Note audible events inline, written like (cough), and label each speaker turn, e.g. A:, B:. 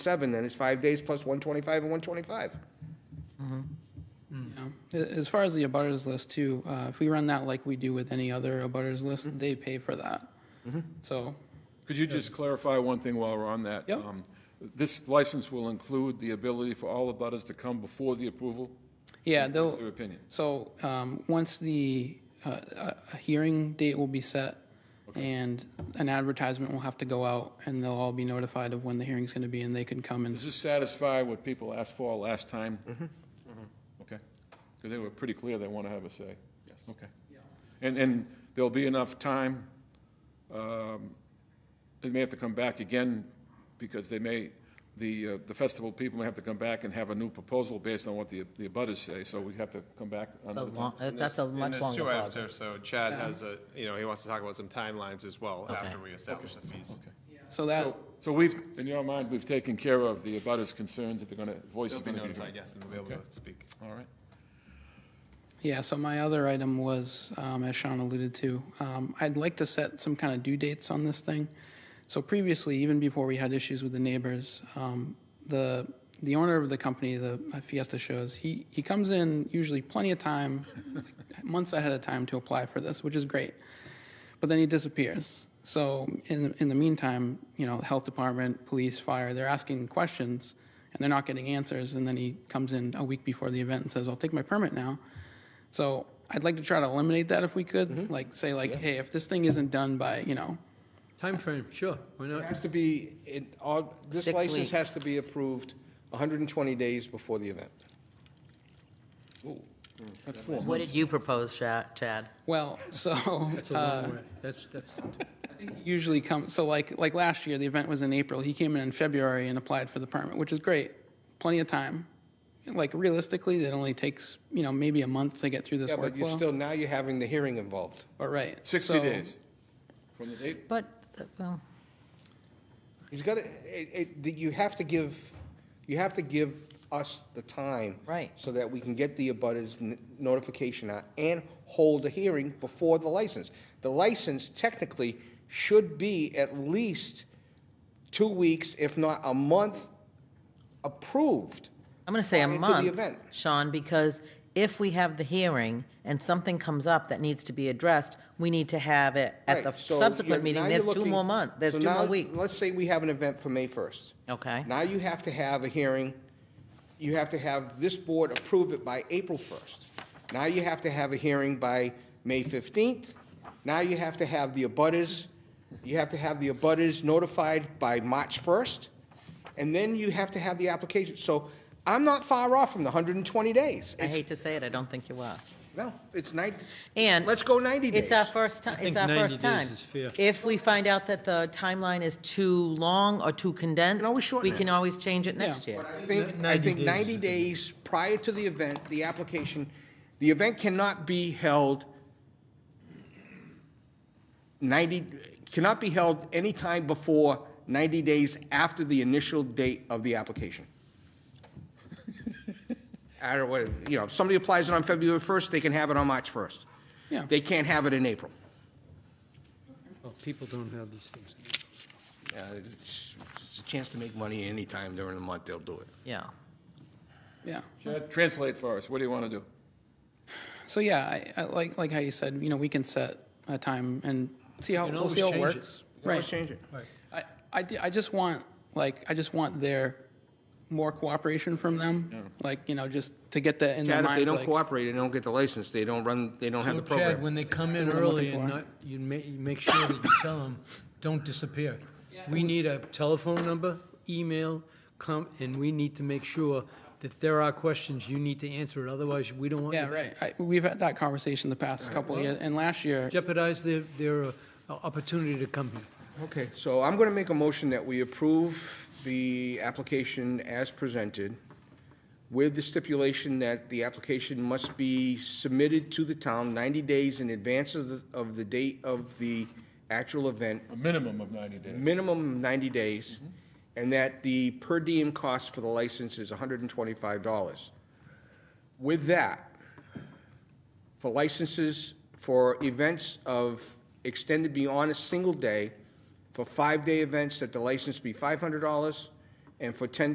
A: seven, then it's five days plus one twenty-five and one twenty-five.
B: Yeah. A- As far as the abutters list too, uh, if we run that like we do with any other abutters list, they pay for that. So,
C: Could you just clarify one thing while we're on that?
B: Yep.
C: Um, This license will include the ability for all the butters to come before the approval?
B: yeah, they'll.
C: That's their opinion.
B: So, um, once the, uh, a, a hearing date will be set and an advertisement will have to go out and they'll all be notified of when the hearing's gonna be and they can come
C: Does
B: and,
C: this satisfy what people asked for last time? Okay, because they were pretty clear they want to have a say. Yes. Okay. And, and there'll be enough time, um, they may have to come back again, because they may, the, uh, the festival people may have to come back and have a new proposal based on what the, the abutters say, so we have to come back
D: That's
C: another
D: a
C: time.
D: long- uh, That's a much
E: And there's
D: longer
E: two items
D: project.
E: here, so Chad has a, you know, he wants to talk about some timelines as well after we establish the fees.
B: so that,
C: So- So we've, in your mind, we've taken care of the abutters' concerns that they're going to, voice
E: They'll
C: is
E: be
C: going to be
E: notified,
C: heard.
E: yes, and they'll be able to speak.
C: All right.
B: yeah, so my other item was, um, as Sean alluded to, um, I'd like to set some kind of due dates on this thing. So previously, even before we had issues with the neighbors, um, the, the owner of the company, the uh, Fiesta Shows, he, he comes in usually plenty of time, (laughs) months ahead of time to apply for this, which is great. but then he disappears. So in in the meantime, you know, health department, police, fire, they're asking questions and they're not getting answers. And then he comes in a week before the event and says, "I'll take my permit now." So I'd like to try to eliminate that if we could,
A: Mm-hmm.
B: like say, like, "Hey, if this thing isn't done by you know
F: Time frame, sure, why
A: It
F: not?
A: has to be, it, all, this
D: Six
A: license
D: weeks.
A: has to be approved hundred and twenty days before the event.
C: That's four
D: What
C: months.
D: did you propose, Sha- Chad?
B: Well, (laughs) so
F: That's a
B: uh,
F: long way. That's, that's,
B: usually come so like like last year the event was in April. He came in in February and applied for the permit, which is great, plenty of time. Like realistically, it only takes you know maybe a month to get through this
A: Yeah,
B: workflow.
A: but you're still, now you're having the hearing involved.
B: but right,
C: 60
B: so-
C: days from the date?
D: But, uh, well.
A: He's got to, it, it, you have to give, you have to give us the time.
D: Right.
A: So that we can get the abutters n- notification out and hold a hearing before the license. The license technically should be at least two weeks, if not a month, approved.
D: I'm going to say a
A: Prior to the
D: month,
A: event.
D: Sean, because if we have the hearing and something comes up that needs to be addressed, we need to have it at
A: Right,
D: the
A: so
D: subsequent
A: you're-
D: meeting.
A: now
D: There's
A: you're
D: two
A: looking-
D: more months, there's
A: so
D: two more
A: now,
D: weeks.
A: Let's say we have an event for May first.
D: Okay,
A: Now you have to have a hearing, you have to have this board approve it by April 1st. Now you have to have a hearing by May 15th. Now you have to have the abutters, you have to have the abutters notified by March 1st. And then you have to have the application. So I'm not far off from the 120 days.
D: I
A: It's-
D: hate to say it, I don't think you are.
A: No, it's 90,
D: And.
A: let's go 90 days.
D: It's our first time, it's
F: think
D: our
F: 90
D: first
F: days
D: time.
F: is fair.
D: If we find out that the timeline is too long or too condensed.
A: always shorten
D: We
A: it.
D: can always change it next year.
A: I think, I
F: 90
A: think
F: days is
A: 90
F: a good-
A: days prior to the event, the application, the event cannot be held 90, cannot be held any time before 90 days after the initial date of the
B: (laughs)
A: application. I don't, know, you know, if somebody applies it on February 1st, they can have it on March 1st.
B: Yeah.
A: They can't have it in April.
F: well, people don't have these things.
A: Yeah, Uh, It's it's a chance to make money anytime during the month, they'll do it.
D: Yeah.
B: Yeah.
C: Chad, translate for us. What do you want to do?
B: So yeah, I, I like like how you said, you know, we can set a time and see how
F: You can
B: we'll see how
F: always
B: it
F: change it.
B: works.
A: Let's
B: Right.
A: change it.
B: I, I, di- I just want like I just want their more cooperation from them. Like you know, just to get that in their
A: Chad, if
B: minds.
A: they don't
B: like,
A: cooperate, they don't get the license, they don't run, they don't have the
F: So
A: program.
F: Chad, when they come in
B: That's what I'm
F: early
B: looking
F: and
B: for.
F: not, you make, you make sure that you tell them, don't disappear. We need a telephone number, email, come, and we need to make sure that there are questions you need to answer it, otherwise we don't want
B: Yeah,
F: to
B: right. I, we've had that conversation the past couple of years, and last year,
F: jeopardize their, their uh, opportunity to come here.
A: Okay, so I'm going to make a motion that we approve the application as presented with the stipulation that the application must be submitted to the town 90 days in advance of the, of the date of the actual event,
C: A minimum of 90 days.
A: minimum 90 days, and that the per diem cost for the license is $125. With that, for licenses for events of extended beyond a single day, for five-day events, that the license be $500, and for ten